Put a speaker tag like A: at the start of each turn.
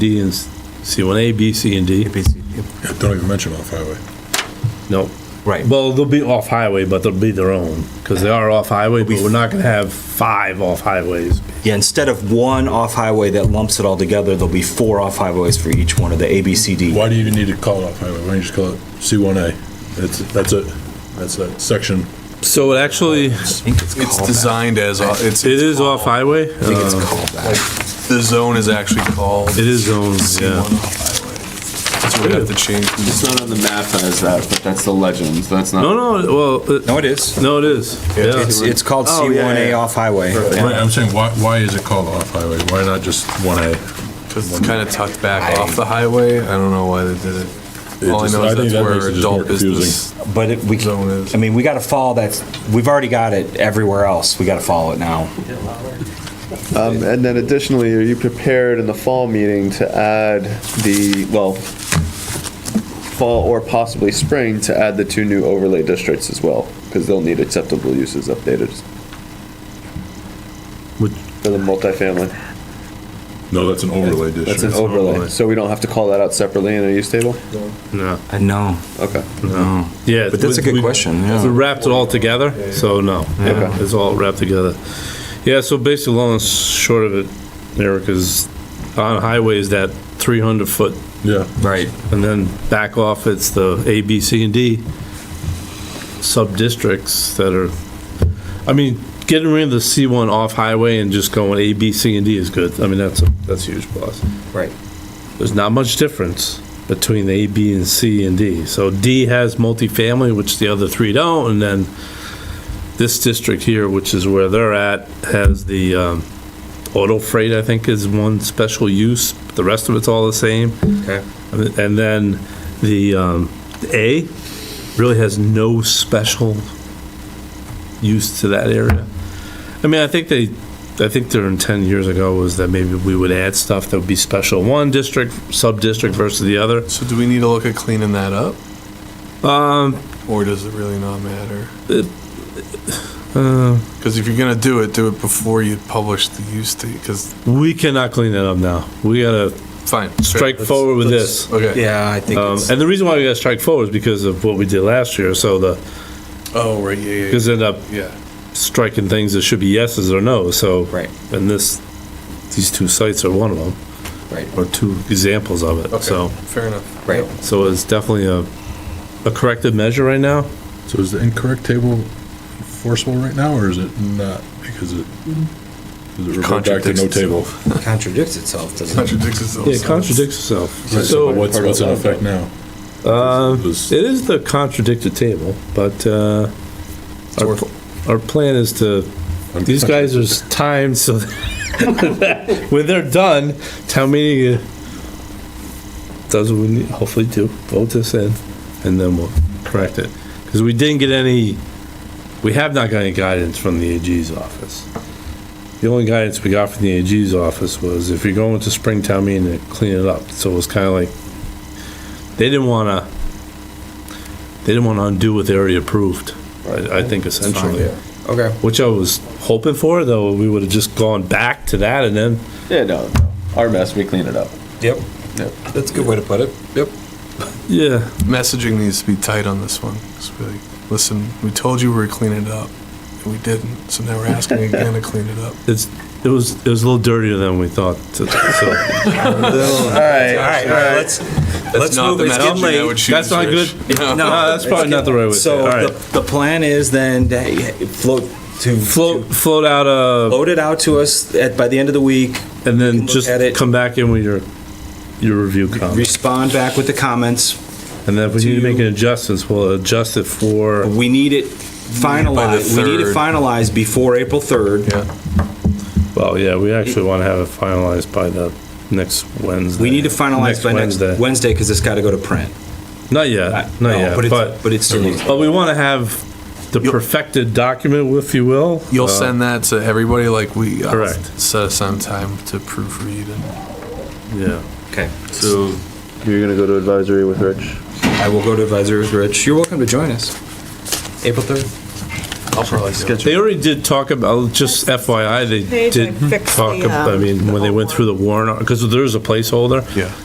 A: D and, s- C1A, B, C, and D?
B: Yeah, Don't even mention off-highway.
A: Nope.
C: Right.
A: Well, they'll be off-highway, but they'll be their own, because they are off-highway, but we're not gonna have five off-highways.
C: Yeah, instead of one off-highway that lumps it all together, there'll be four off-highways for each one of the A, B, C, D.
B: Why do you even need to call it off-highway? Why don't you just call it C1A? That's, that's it. That's that section.
A: So it actually,
C: I think it's
D: It's
C: called that.
D: designed as, it's,
A: it is off-highway?
C: I think it's called that.
D: the zone is actually called.
A: It is zoned,
D: C1
A: yeah.
D: off-highway. That's what we have to change.
E: It's not on the map as that, but that's the legend. That's not.
A: No, no, well, it-
C: No, it is.
A: no, it is. Yeah.
C: It's, it's called
A: Oh, yeah,
C: C1A
A: yeah.
C: off-highway.
B: Right, I'm saying, why, why is it called off-highway? Why not just 1A?
D: Because it's kind of tucked back off the highway. I don't know why they did it. All I
B: just-
D: know
B: I
D: is
B: think
D: that's
B: that makes
D: where
B: it just more
D: adult business
C: But it- we,
D: zone
C: can-
D: is.
C: I mean, we gotta follow that, we've already got it everywhere else, we gotta follow it now.
F: Um, And then additionally, are you prepared in the fall meeting to add the, well, fall or possibly spring, to add the two new overlay districts as well? Because they'll need acceptable uses updated
A: Would-
F: for the multifamily.
B: No, that's an overlay district.
F: That's an overlay, so we don't have to call that out separately in a use table?
A: No,
C: I know,
F: Okay.
C: no.
A: yeah.
C: But that's a good
A: we-
C: question,
A: We
C: yeah.
A: wrapped it all together, so no,
F: Okay.
A: it's all wrapped together. Yeah, so basically, long and short of it, Eric, is on highways, that 300-foot,
B: Yeah,
C: Right.
A: and then back off, it's the A, B, C, and D sub-districts that are, I mean, getting rid of the C1 off-highway and just going A, B, C, and D is good. I mean, that's, a that's a huge plus.
C: Right.
A: There's not much difference between A, B, and C and D. So D has multifamily, which the other three don't, and then this district here, which is where they're at, has the um, auto freight, I think, is one special use. The rest of it's all the same.
C: Okay.
A: And and then the um, A really has no special use to that area. I mean, I think they, I think their intent years ago was that maybe we would add stuff that would be special one district, sub-district versus the other.
D: So do we need to look at cleaning that up?
A: Um,
D: Or does it really not matter?
A: uh,
D: Because if you're going to do it, do it before you publish the use date, because,
A: We cannot clean that up now. We gotta
D: fine. sure,
A: strike
D: let's-
A: forward with
D: let's-
A: this.
D: Okay.
C: Yeah, I think
A: Um,
C: it's,
A: And the reason why we gotta strike forward is because of what we did last year, so the,
D: Oh, right, yeah, yeah,
A: because end up
D: yeah. yeah.
A: striking things that should be yeses or nos, so.
C: Right.
A: And this, these two sites are one of them,
C: right,
A: or two examples of it,
D: Okay,
A: so.
D: Fair enough.
C: right.
A: So it's definitely a, a corrective measure right now.
B: so is the incorrect table enforceable right now, or is it not? Because it, does it revert back to
D: Contradicts
B: no table?
D: itself.
C: Contradicts itself, doesn't it?
D: Contradicts itself.
A: Yeah, it contradicts itself.
B: Right, So
A: So,
B: what's, what's in effect now?
A: uh,
B: It was-
A: it is the contradicted table, but, uh, our, pl- our plan is to, these guys are s- timed so that when they're done, town meeting uh, does what we need, hopefully do, vote this in, and then we'll correct it. Because we didn't get any, we have not got any guidance from the AG's office. The only guidance we got from the AG's office was if you're going to Springtown meeting, to clean it up. So it was kind of like, they didn't want to, they didn't want to undo what they already approved, I, I think essentially.
C: Okay.
A: Which I was hoping for, though, we would have just gone back to that and then,
F: Yeah, no, no. our mess, we clean it up.
C: Yep.
F: Yep.
C: That's a good way to put it. Yep.
A: yeah.
D: Messaging needs to be tight on this one. Just be like, listen, we told you we were cleaning it up, and we didn't, so now we're asking again to clean it up.
A: It's, it was, it was a little dirtier than we thought, so.
F: All right.
C: All right, all right, let's, let's
D: not
C: move,
D: the
C: it's getting
D: messaging I
C: late.
D: would choose,
A: That's not good?
D: Rich.
A: No, that's probably not the right way to say it,
C: So
A: all
C: the,
A: right.
C: the plan is then to float, to
A: Float, float out, uh,
C: Load it out to us at, by the end of the week,
A: and
C: can
A: then
C: look
A: just
C: at it.
A: come back in with your, your review comments.
C: respond back with the comments.
A: And then if we need to
C: to-
A: make an adjustments, we'll adjust it for,
C: We need it finalized, we need it
D: third.
C: finalized before April 3rd.
D: Yeah.
A: well, yeah, we actually want to have it finalized by the next Wednesday.
C: We need to finalize
A: Next
C: by next
A: Wednesday.
C: Wednesday, because it's got to go to print.
A: Not
C: I-
A: yet,
C: no,
A: not yet, but.
C: it's- But it's still,
A: But we want to have the perfected document, if you will.
D: You'll
A: Uh,
D: send that to everybody, like we uh,
A: Correct.
D: set aside time to proofread and
A: Yeah.
C: okay.
F: So you're gonna go to advisory with Rich?
C: I will go to advisory with Rich. You're welcome to join us. April 3rd.
D: I'll probably do it.
A: They already did talk about, just FYI,
G: They
A: they
G: did
A: did
G: fix
A: talk,
G: the,
A: ab- I
G: um,
A: mean, when they went through the warrant, because there is a placeholder.
D: Yeah.